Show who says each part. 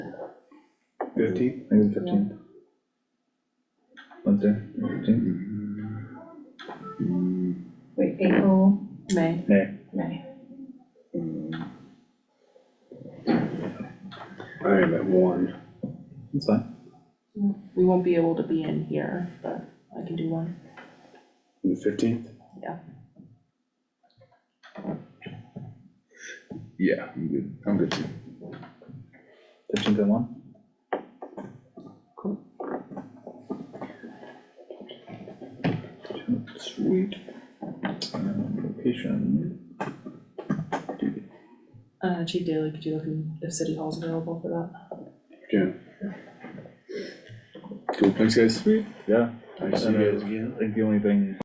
Speaker 1: Fifteenth?
Speaker 2: maybe the fifteenth. Wednesday, fifteenth,
Speaker 3: Wait, April, May,
Speaker 2: May,
Speaker 3: May.
Speaker 1: I am at one.
Speaker 2: that's fine,
Speaker 4: We won't be able to be in here, but I can do one.
Speaker 1: The fifteenth?
Speaker 4: Yeah.
Speaker 1: Yeah, I'm good, I'm good too.
Speaker 2: fifteenth and one,
Speaker 1: Sweet.
Speaker 2: Um, location,
Speaker 4: Uh, Chief Daly, could you look in if City Hall's available for that?
Speaker 1: Yeah. Cool, thanks guys. Sweet.
Speaker 2: yeah.
Speaker 1: Nice to see
Speaker 2: And, uh,
Speaker 1: you guys again.
Speaker 2: I think the only thing